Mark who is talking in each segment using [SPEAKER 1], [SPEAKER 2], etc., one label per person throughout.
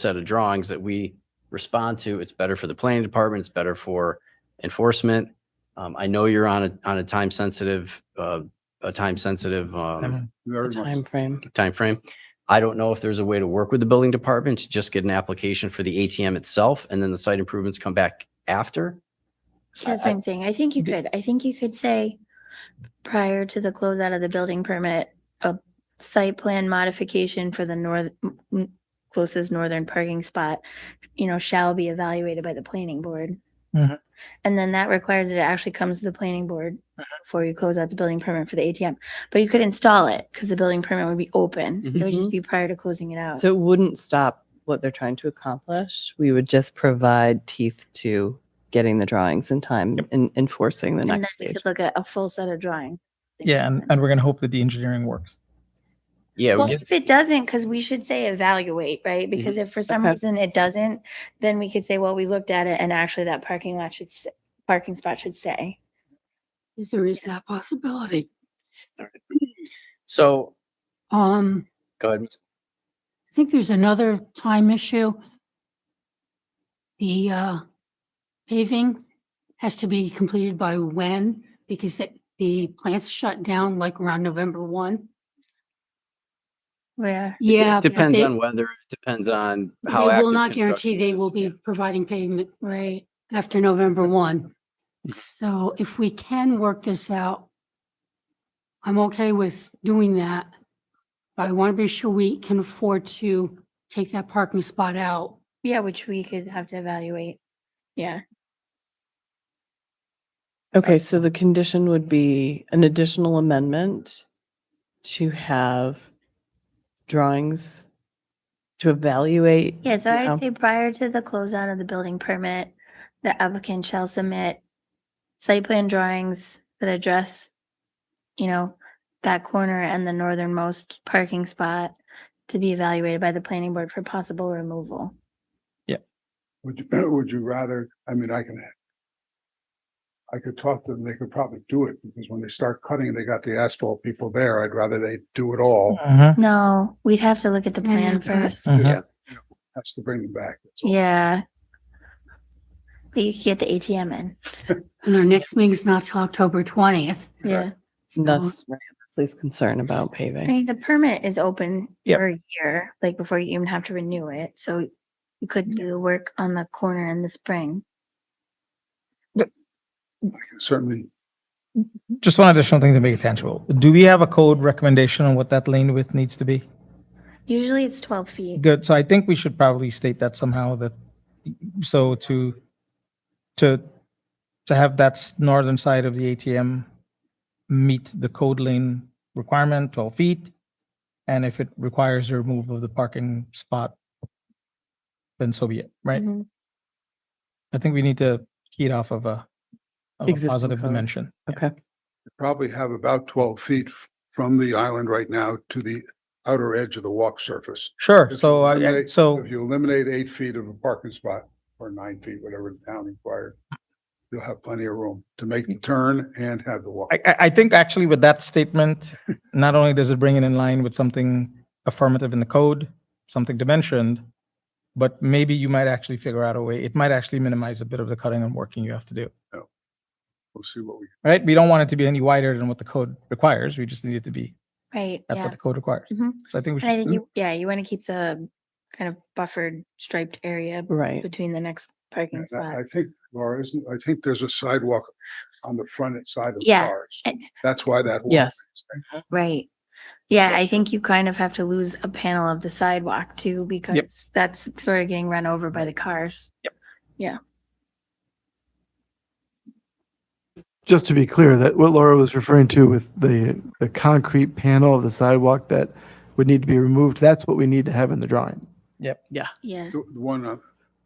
[SPEAKER 1] set of drawings that we respond to. It's better for the planning department. It's better for enforcement. Um, I know you're on a, on a time sensitive, uh, a time sensitive, um,
[SPEAKER 2] Time frame.
[SPEAKER 1] timeframe. I don't know if there's a way to work with the building department to just get an application for the ATM itself and then the site improvements come back after.
[SPEAKER 3] That's what I'm saying. I think you could, I think you could say prior to the closeout of the building permit, a site plan modification for the north, m- closest northern parking spot, you know, shall be evaluated by the planning board.
[SPEAKER 2] Mhm.
[SPEAKER 3] And then that requires that it actually comes to the planning board before you close out the building permit for the ATM. But you could install it because the building permit would be open. It would just be prior to closing it out.
[SPEAKER 2] So it wouldn't stop what they're trying to accomplish. We would just provide teeth to getting the drawings in time and enforcing the
[SPEAKER 3] And then
[SPEAKER 2] next
[SPEAKER 3] we
[SPEAKER 2] stage.
[SPEAKER 3] could look at a full set of drawings.
[SPEAKER 4] Yeah, and, and we're gonna hope that the engineering works.
[SPEAKER 1] Yeah. we
[SPEAKER 3] Well,
[SPEAKER 1] get-
[SPEAKER 3] if it doesn't, because we should say evaluate, right? Because if for some
[SPEAKER 2] Okay.
[SPEAKER 3] reason it doesn't, then we could say, well, we looked at it and actually that parking lot should, st- parking spot should stay.
[SPEAKER 5] Is there is that possibility?
[SPEAKER 1] So
[SPEAKER 5] Um,
[SPEAKER 1] go ahead. Ms.
[SPEAKER 5] I think there's another time issue. The uh, paving has to be completed by when? Because it- the plants shut down like around November one.
[SPEAKER 3] Yeah.
[SPEAKER 5] Yeah. but
[SPEAKER 1] Depends
[SPEAKER 5] they-
[SPEAKER 1] on whether, depends on
[SPEAKER 5] They
[SPEAKER 1] how.
[SPEAKER 5] will
[SPEAKER 1] active
[SPEAKER 5] not guarantee
[SPEAKER 1] construction
[SPEAKER 5] they
[SPEAKER 1] is.
[SPEAKER 5] will be
[SPEAKER 1] Yeah.
[SPEAKER 5] providing pavement
[SPEAKER 3] Right.
[SPEAKER 5] after November one. So if we can work this out, I'm okay with doing that. But I want to be sure we can afford to take that parking spot out.
[SPEAKER 3] Yeah, which we could have to evaluate. Yeah.
[SPEAKER 2] Okay, so the condition would be an additional amendment to have drawings to evaluate.
[SPEAKER 3] Yeah, so
[SPEAKER 2] the
[SPEAKER 3] I'd
[SPEAKER 2] out-
[SPEAKER 3] say prior to the closeout of the building permit, the applicant shall submit site plan drawings that address, you know, that corner and the northernmost parking spot to be evaluated by the planning board for possible removal.
[SPEAKER 6] Would you, would you rather, I mean, I can. I could talk to them, they could probably do it, because when they start cutting, they got the asphalt people there, I'd rather they do it all,
[SPEAKER 3] Mm-hmm. No, we'd have to look at the
[SPEAKER 5] Yeah,
[SPEAKER 3] plan
[SPEAKER 5] but-
[SPEAKER 3] first.
[SPEAKER 6] has to bring them back. that's all.
[SPEAKER 3] Yeah. But you could get the ATM in.
[SPEAKER 5] And our next meeting's not till October twentieth.
[SPEAKER 3] Yeah.
[SPEAKER 2] And That's right, Leslie's concern about
[SPEAKER 3] I
[SPEAKER 2] paving.
[SPEAKER 3] mean, the permit is open
[SPEAKER 4] Yep.
[SPEAKER 3] for a year, like before you even have to renew it. So you could do the work on the corner in the spring.
[SPEAKER 6] I can Certainly,
[SPEAKER 4] Just one additional thing to make it tangible. Do we have a code recommendation on what that lane width needs to be?
[SPEAKER 3] Usually it's twelve feet.
[SPEAKER 4] Good, so I think we should probably state that somehow that, so to, to, to have that s- northern side of the ATM meet the code lane requirement, twelve feet, and if it requires the removal of the parking spot, then so be it, right?
[SPEAKER 3] Mhm.
[SPEAKER 4] I think we need to key it off of a, of a
[SPEAKER 2] Existing
[SPEAKER 4] positive
[SPEAKER 2] code.
[SPEAKER 4] dimension.
[SPEAKER 2] Okay,
[SPEAKER 6] you probably have about twelve feet f- from the island right now to the outer edge of the walk surface.
[SPEAKER 4] Sure,
[SPEAKER 6] If you
[SPEAKER 4] so, I- I,
[SPEAKER 6] eliminate-
[SPEAKER 4] so.
[SPEAKER 6] If you eliminate eight feet of a parking spot, or nine feet, whatever the town required, you'll have plenty of room to make the turn and have the walk.
[SPEAKER 4] I, I- I think actually with that statement, not only does it bring it in line with something affirmative in the code, something dimensioned, but maybe you might actually figure out a way, it might actually minimize a bit of the cutting and working you have to do,
[SPEAKER 6] We'll see what we,
[SPEAKER 4] right? We don't want it to be any wider than what the code requires. We just need it to be
[SPEAKER 3] Right,
[SPEAKER 4] at
[SPEAKER 3] yeah.
[SPEAKER 4] what the code requires.
[SPEAKER 3] Mhm.
[SPEAKER 4] So I think we
[SPEAKER 3] And I
[SPEAKER 4] should,
[SPEAKER 3] think
[SPEAKER 4] still-
[SPEAKER 3] you, yeah, you want to keep the kind of buffered striped area
[SPEAKER 2] right.
[SPEAKER 3] between the next parking
[SPEAKER 6] And I
[SPEAKER 3] spot.
[SPEAKER 6] I think, Laura, isn't, I think there's a sidewalk on the front side of
[SPEAKER 3] Yeah,
[SPEAKER 6] cars.
[SPEAKER 3] and-
[SPEAKER 6] That's why that. walk
[SPEAKER 2] Yes.
[SPEAKER 6] is there.
[SPEAKER 3] Right. Yeah, I think you kind of have to lose a panel of the sidewalk too, because that's sort of getting run over by the cars.
[SPEAKER 7] Just to be clear, that what Laura was referring to with the, the concrete panel of the sidewalk that would need to be removed, that's what we need to have in the drawing.
[SPEAKER 3] Yeah.
[SPEAKER 6] The the one on,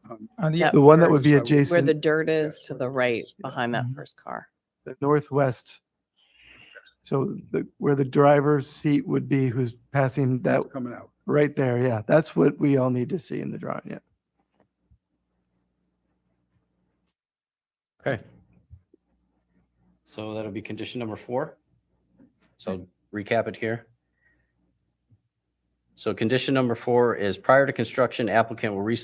[SPEAKER 6] um, on
[SPEAKER 4] uh, yeah,
[SPEAKER 2] Yeah.
[SPEAKER 7] The one that would be
[SPEAKER 6] Where is that?
[SPEAKER 2] Where
[SPEAKER 7] adjacent,
[SPEAKER 2] the
[SPEAKER 7] the
[SPEAKER 2] dirt is to the right behind that
[SPEAKER 7] Mm-hmm.
[SPEAKER 4] Mhm.
[SPEAKER 2] first car.
[SPEAKER 7] northwest. So the, where the driver's seat would be, who's passing that,
[SPEAKER 6] that's coming out.
[SPEAKER 7] right there, yeah, that's what we all need to see in the drawing, yeah.
[SPEAKER 1] Okay. So that'll be condition number four. So recap it here. So condition number four is prior to construction applicant will resubmit